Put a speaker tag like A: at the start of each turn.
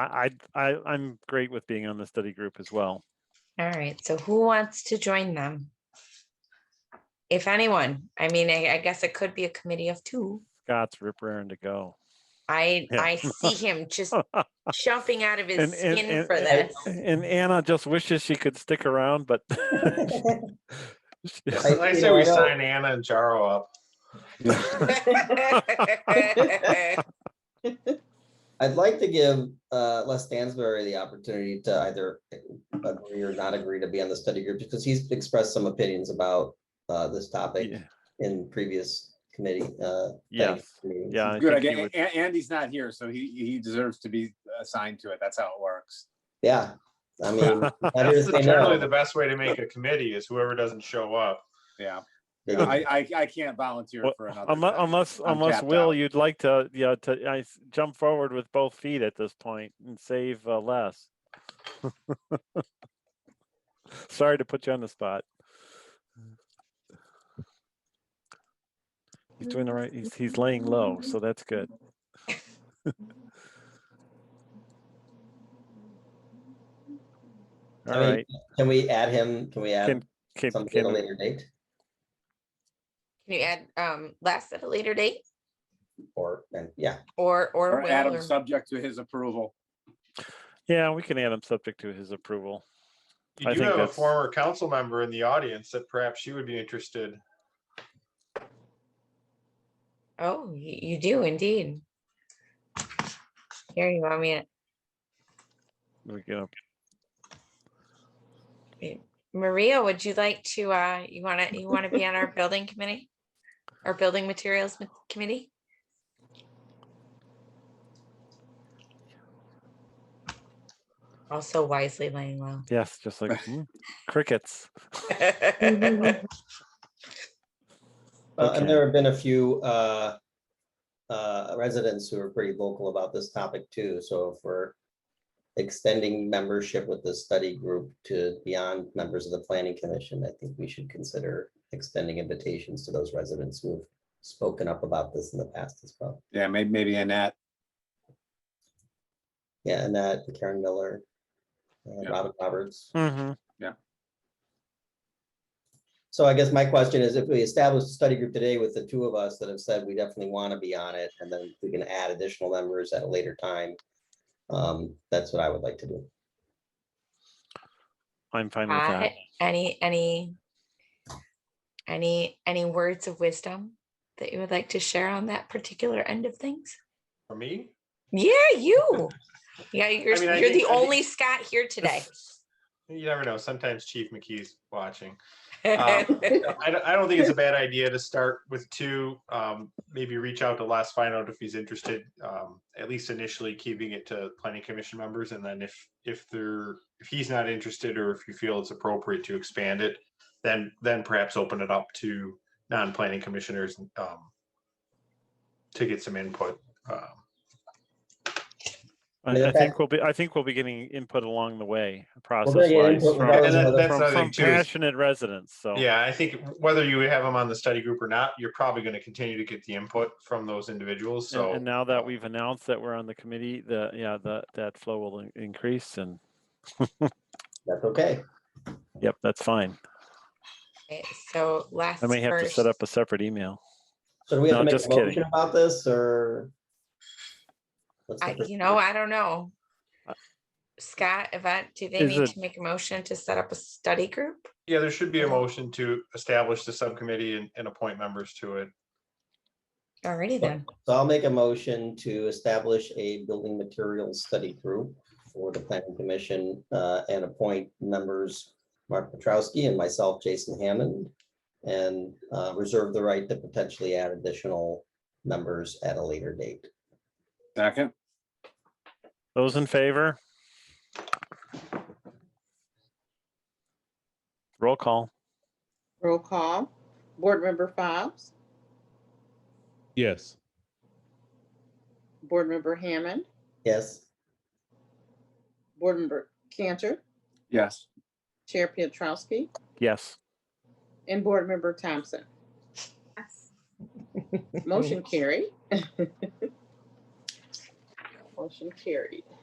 A: I, I, I- I'm great with being on the study group as well.
B: All right, so who wants to join them? If anyone, I mean, I, I guess it could be a committee of two.
A: Scott's rip raring to go.
B: I,
A: Yeah.
B: I see him just jumping out of his
A: And, and,
B: skin
A: and,
B: for this.
A: and Anna just wishes she could stick around, but
C: I-
D: I
C: you
D: say
C: know,
D: we
C: I know-
D: sign Anna and Jaro up.
C: I'd like to give uh, Les Stansberry the opportunity to either agree or not agree to be on the study group because he's expressed some opinions about uh, this topic
A: yeah,
C: in previous committee. uh, planning
A: Yes.
C: meetings.
A: yeah. I
E: Good, I
A: think he
E: get, A- Andy's not here, so he, he deserves to be assigned to it. That's how it works.
C: Yeah, I mean,
A: would-
C: better to
D: That's
C: say
D: generally the
C: no.
D: best way to make a committee is whoever doesn't show up.
E: Yeah,
C: Yeah.
E: I, I, I can't volunteer
A: Well,
E: for another.
A: Unless,
E: thing.
A: unless,
E: I'm
A: unless
E: tapped
A: Will,
E: out.
A: you'd like to, yeah, to, I s- jump forward with both feet at this point and save uh, less. Sorry to put you on the spot. He's doing the right, he's, he's laying low, so that's good. All
C: mean,
A: right,
C: Can we add him? Can we add
A: Can- can,
C: something at a
A: can,
C: later date
B: Can you add, um, last at a later date
C: or, and yeah,
B: or, or
E: Or
B: Will
E: Adam,
B: or?
E: subject to his approval.
A: yeah, we can add him subject to his approval. I
D: You do
A: think
D: have a
A: that's-
D: former council member in the audience that perhaps she would be interested.
B: Oh, y- you do indeed. Here, you want me to
A: We can
B: Maria, would you like to, uh, you wanna, you wanna be on our building committee? Our building materials ma- committee? Also wisely laying low.
A: Yes, just like "Hmm, crickets.
C: Well, Uh, and
A: Okay.
C: there have been a few uh, uh, residents who are pretty vocal about this topic too, so if we're extending membership with the study group to beyond members of the planning commission, I think we should consider extending invitations to those residents who have spoken up about this in the past as well.
E: Yeah, maybe, maybe Annette.
C: Yeah, and that Karen Miller, uh,
E: Yeah.
C: Robin Roberts.
A: Mm-hmm.
C: So I guess my question is if we establish a study group today with the two of us that have said we definitely want to be on it, and then we can add additional members at a later time. Um, that's what I would like to do.
A: I'm fine with that.
B: I- Uh, Any, any, any, any words of wisdom that you would like to share on that particular end of things?
D: For me?
B: Yeah, you. Yeah, you're,
D: mean, I
B: you're
D: think-
B: the
D: I think-
B: only Scott here today.
D: You never know. Sometimes Chief McKee's watching. Um,
B: All
D: I don't, I don't think it's a bad idea to start with two. Um, maybe reach out to Les, find out if he's interested. Um, at least initially keeping it to planning commission members, and then if if they're if he's not interested or if you feel it's appropriate to expand it, then then perhaps open it up to non-planning commissioners um, to get some input. Um,
A: I,
C: Yeah,
A: I
C: that-
A: think we'll be, I think we'll be getting input along the way, process
C: get
A: wise.
C: input
A: From
C: regardless of
A: from-
C: whether-
D: That's another
A: from
D: thing too is-
A: passionate residents, so.
D: Yeah, I think whether you have them on the study group or not, you're probably going to continue to get the input from those individuals.
A: and-
D: So
A: And now that we've announced that we're on the committee, the, yeah, the, that flow will in- increase and,
C: That's okay.
A: yep, that's fine.
B: right, So last.
A: I may have to set up a separate email.
C: So do we have
A: No,
C: to make
A: just
C: a
A: kidding.
C: motion about this or? What's the
B: I,
C: first
B: you know,
C: thing?
B: I don't know. Scott, Yvette, do they
A: Uh, Is
B: need
A: it-
B: to make a motion to set up a study group?
D: yeah, there should be a motion to establish the subcommittee and, and appoint members to it.
B: Alrighty then.
C: So I'll make a motion to establish a building materials study group for the planning commission uh, and appoint members Mark Petrowski and myself, Jason Hammond, and uh, reserve the right to potentially add additional members at a later date.
E: Second,
A: Those in favor? Roll call.
F: Roll call. Board Member Fobbs,
G: Yes.
F: Board Member Hammond,
C: Yes,
F: Board Member Cantor,
E: yes.
F: Chair Pietrowski,
A: Yes.
F: and Board Member Thompson. Motion carried. Motion carried.